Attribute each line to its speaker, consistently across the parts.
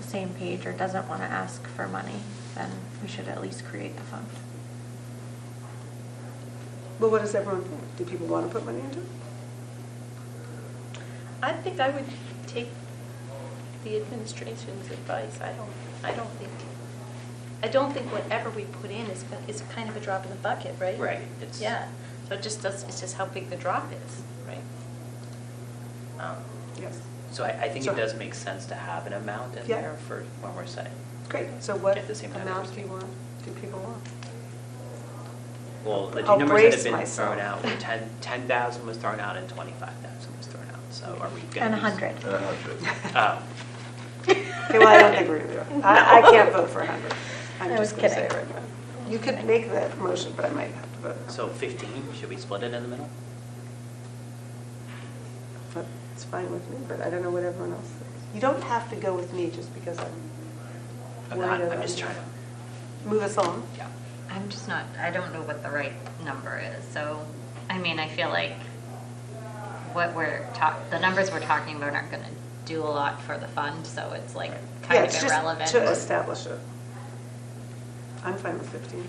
Speaker 1: same page or doesn't want to ask for money, then we should at least create the fund.
Speaker 2: But what does everyone think? Do people want to put money into it?
Speaker 3: I think I would take the administration's advice. I don't, I don't think, I don't think whatever we put in is, is kind of a drop in the bucket, right?
Speaker 4: Right, it's-
Speaker 3: Yeah, so it just does, it's just how big the drop is, right? Um,
Speaker 2: Yes.
Speaker 4: So I, I think
Speaker 2: So-
Speaker 4: it does make sense to have an amount in
Speaker 2: Yeah.
Speaker 4: there for when we're setting.
Speaker 2: Great, so what
Speaker 4: At the same time,
Speaker 2: amount
Speaker 4: there's-
Speaker 2: do you want, do people want?
Speaker 4: Well, the
Speaker 2: I'll
Speaker 4: two numbers that
Speaker 2: brace
Speaker 4: have been
Speaker 2: myself.
Speaker 4: thrown out, were 10 10,000 was thrown out and 25,000 was thrown out, so are we going to?
Speaker 1: And a hundred.
Speaker 5: And a hundred.
Speaker 4: Oh,
Speaker 2: Okay, well, I don't think we're going to do it. I, I can't vote for 100.
Speaker 1: I
Speaker 2: I'm just
Speaker 1: was
Speaker 2: going to say it
Speaker 1: kidding.
Speaker 2: right now. You could make that motion, but I might have to vote.
Speaker 4: so 15, should we split it in the middle?
Speaker 2: But It's fine with me, but I don't know what everyone else thinks. You don't have to go with me just because I'm
Speaker 4: I'm
Speaker 2: worried
Speaker 4: not,
Speaker 2: about.
Speaker 4: I'm just trying to,
Speaker 2: Move us on.
Speaker 4: yeah.
Speaker 6: I'm just not, I don't know what the right number is, so, I mean, I feel like what we're talk, the numbers we're talking about aren't gonna do a lot for the fund, so it's like
Speaker 2: Yeah,
Speaker 6: kind
Speaker 2: it's
Speaker 6: of
Speaker 2: just
Speaker 6: irrelevant.
Speaker 2: To establish it. I'm fine with 15.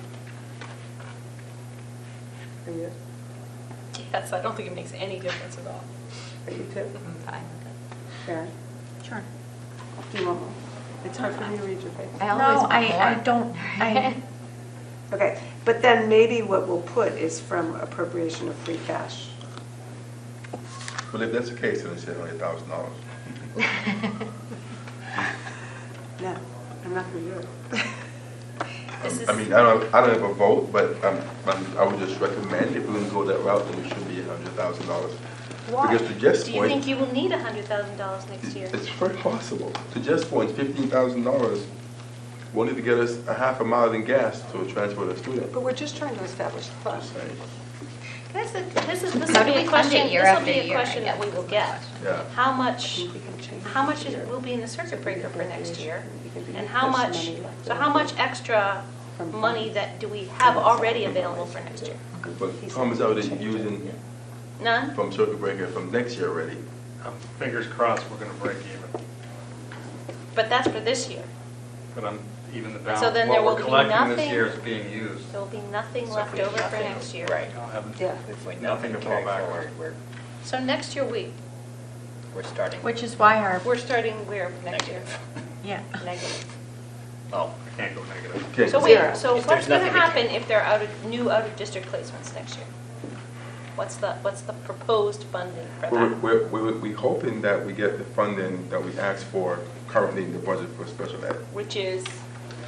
Speaker 2: Are you,
Speaker 3: Yes, I don't think it makes any difference at all.
Speaker 2: are you too?
Speaker 6: I'm fine with it.
Speaker 2: Karen?
Speaker 1: Sure.
Speaker 2: Do you want more? It's hard for me to read your face.
Speaker 6: I always
Speaker 1: No,
Speaker 6: want more.
Speaker 1: I, I don't, I,
Speaker 2: Okay, but then maybe what we'll put is from appropriation of free cash.
Speaker 5: Well, if that's the case, then it's seven hundred thousand dollars.
Speaker 2: No, I'm not going to do it.
Speaker 3: This is,
Speaker 5: I mean, I don't, I don't have a vote, but I'm, I'm, I would just recommend if we're gonna go that route, then it should be a hundred thousand dollars.
Speaker 3: why?
Speaker 5: Because to Jeff's
Speaker 3: Do you think
Speaker 5: point,
Speaker 3: you will need $100,000 next year?
Speaker 5: it's very possible. To Jeff's point, fifteen thousand dollars will need to get us a half a mile in gas to transport a student.
Speaker 2: But we're just trying to establish the fund.
Speaker 5: Just saying.
Speaker 3: This is, this is, this
Speaker 6: How
Speaker 3: will
Speaker 6: do
Speaker 3: be
Speaker 6: we
Speaker 3: a
Speaker 6: fund it
Speaker 3: question,
Speaker 6: year
Speaker 3: this will
Speaker 6: after
Speaker 3: be a
Speaker 6: year, I
Speaker 3: question
Speaker 6: guess,
Speaker 3: that we
Speaker 6: is
Speaker 3: will
Speaker 6: my
Speaker 3: get.
Speaker 5: Yeah.
Speaker 3: How
Speaker 2: I
Speaker 3: much,
Speaker 2: think we can change it
Speaker 3: how much
Speaker 2: here.
Speaker 3: is, will be in the circuit breaker for next year?
Speaker 2: Appropriation.
Speaker 3: And how much, so how much extra money that do we have already available for next year?
Speaker 5: But Tom is already using
Speaker 3: None?
Speaker 5: from circuit breaker from next year already.
Speaker 7: I'm Um, fingers crossed we're gonna break even,
Speaker 3: But that's for this year.
Speaker 7: but I'm, even the
Speaker 3: So then
Speaker 7: balance,
Speaker 3: there
Speaker 7: what
Speaker 3: will
Speaker 7: we're
Speaker 3: be
Speaker 7: collecting this
Speaker 3: nothing-
Speaker 7: year is being used.
Speaker 3: There will be nothing
Speaker 4: So if
Speaker 3: left
Speaker 4: we have
Speaker 3: over for
Speaker 4: nothing-
Speaker 3: next year.
Speaker 7: I
Speaker 4: Right.
Speaker 7: don't have-
Speaker 2: Yeah.
Speaker 4: If we have
Speaker 7: Nothing
Speaker 4: nothing
Speaker 7: to fall
Speaker 4: carry
Speaker 7: back on.
Speaker 4: forward, we're,
Speaker 3: So next year, we,
Speaker 4: we're starting
Speaker 1: which is why our,
Speaker 3: we're starting where next year?
Speaker 4: negative.
Speaker 1: yeah.
Speaker 3: Negative.
Speaker 4: Oh,
Speaker 7: I Can't go negative.
Speaker 5: Okay.
Speaker 3: So
Speaker 2: Zero.
Speaker 3: wait, so
Speaker 4: If
Speaker 3: what's
Speaker 4: there's
Speaker 3: gonna
Speaker 4: nothing we can-
Speaker 3: happen if there are out of, new out-of-district placements next year? What's the, what's the proposed funding for
Speaker 5: We're,
Speaker 3: that?
Speaker 5: we're, we're- we're hoping that we get the funding that we asked for currently in the budget for special ed,
Speaker 3: Which is,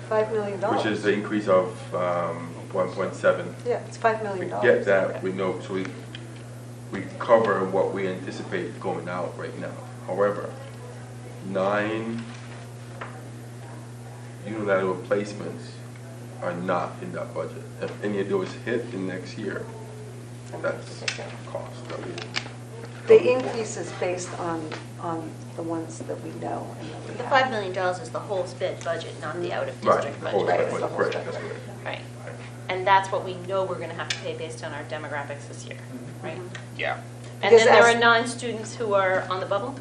Speaker 2: Five million dollars.
Speaker 5: which is the increase of um, 1.7.
Speaker 2: Yeah, it's five
Speaker 5: If we
Speaker 2: million dollars.
Speaker 5: get that, we know, so we, we cover what we anticipate going out right now. However, nine unilateral placements are not in that budget. If any of those hit in next year, that's cost that we.
Speaker 2: The increase is based on, on the ones that we know and that we have.
Speaker 3: the $5 million is the whole sped budget, not the
Speaker 5: Right,
Speaker 3: out-of-district
Speaker 5: the whole
Speaker 2: budget.
Speaker 3: budget.
Speaker 2: Right,
Speaker 5: budget,
Speaker 2: the whole
Speaker 5: correct,
Speaker 2: budget.
Speaker 5: that's correct.
Speaker 3: Mm-hmm. Right. And that's what we know we're gonna have to pay based on our demographics this year,
Speaker 5: Mm-hmm.
Speaker 3: right?
Speaker 4: yeah.
Speaker 3: And
Speaker 2: Because
Speaker 3: then there
Speaker 2: as-
Speaker 3: are non-students who are on the bubble?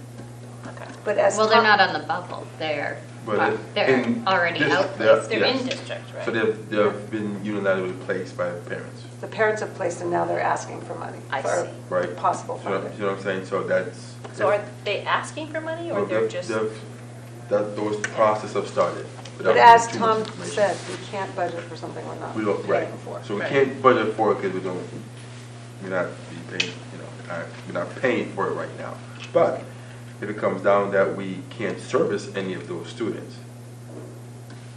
Speaker 3: Okay.
Speaker 2: But as.
Speaker 6: Well, they're
Speaker 2: Tom-
Speaker 6: not on the bubble, they're,
Speaker 5: But if-
Speaker 6: they're
Speaker 5: in
Speaker 6: already
Speaker 5: this-
Speaker 6: out.
Speaker 5: they're-
Speaker 3: They're in
Speaker 5: yes.
Speaker 3: district, right?
Speaker 5: So they've, they've been unilaterally placed by parents,
Speaker 2: The parents have placed and now they're asking for money.
Speaker 3: I
Speaker 2: for
Speaker 3: see.
Speaker 5: right?
Speaker 2: Possible
Speaker 5: You know-
Speaker 2: funding.
Speaker 5: You know what I'm saying? So that's.
Speaker 3: So are they asking for money or
Speaker 5: Well,
Speaker 3: they're
Speaker 5: they've-
Speaker 3: just?
Speaker 5: they've- That, those process have started. without
Speaker 2: But as
Speaker 5: too much
Speaker 2: Tom
Speaker 5: information.
Speaker 2: said, we can't budget for something we're not
Speaker 5: We don't, right,
Speaker 2: paying for.
Speaker 5: so we
Speaker 4: Right.
Speaker 5: can't budget for it because we don't, we're not be paying, you know, we're not- we're not paying for it right now. But if it comes down that we can't service any of those students,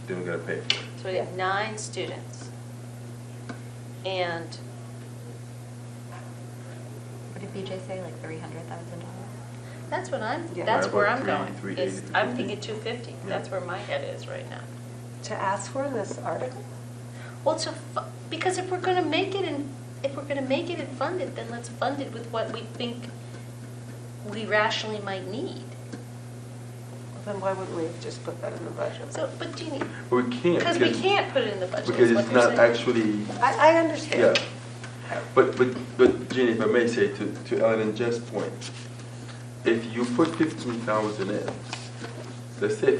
Speaker 5: then we gotta pay for it.
Speaker 3: So we have nine students. And
Speaker 6: What did BJ say, like three hundred thousand dollars?
Speaker 3: that's what I'm,
Speaker 2: Yeah.
Speaker 3: that's
Speaker 5: Right,
Speaker 3: where
Speaker 5: about
Speaker 3: I'm
Speaker 5: three-
Speaker 3: going.
Speaker 5: three
Speaker 3: is
Speaker 5: eighty to
Speaker 3: I'm
Speaker 5: 50.
Speaker 3: thinking 250.
Speaker 5: Yeah.
Speaker 3: That's where my head is right now.
Speaker 2: To ask for in this article?
Speaker 3: Well, to, fu- because if we're gonna make it and, if we're gonna make it and fund it, then let's fund it with what we think we rationally might need.
Speaker 2: Then why wouldn't we just put that in the budget?
Speaker 3: So, but Jeannie,
Speaker 5: But we can't.
Speaker 3: because we can't put it in the budget. is
Speaker 5: Because
Speaker 3: what
Speaker 5: it's
Speaker 3: you're
Speaker 5: not
Speaker 3: saying.
Speaker 5: actually,
Speaker 2: I, I
Speaker 5: yeah.
Speaker 2: understand.
Speaker 5: But, but, but Jeannie, if I may say to, to Ellen and Jeff's point, if you put fifteen thousand in, let's say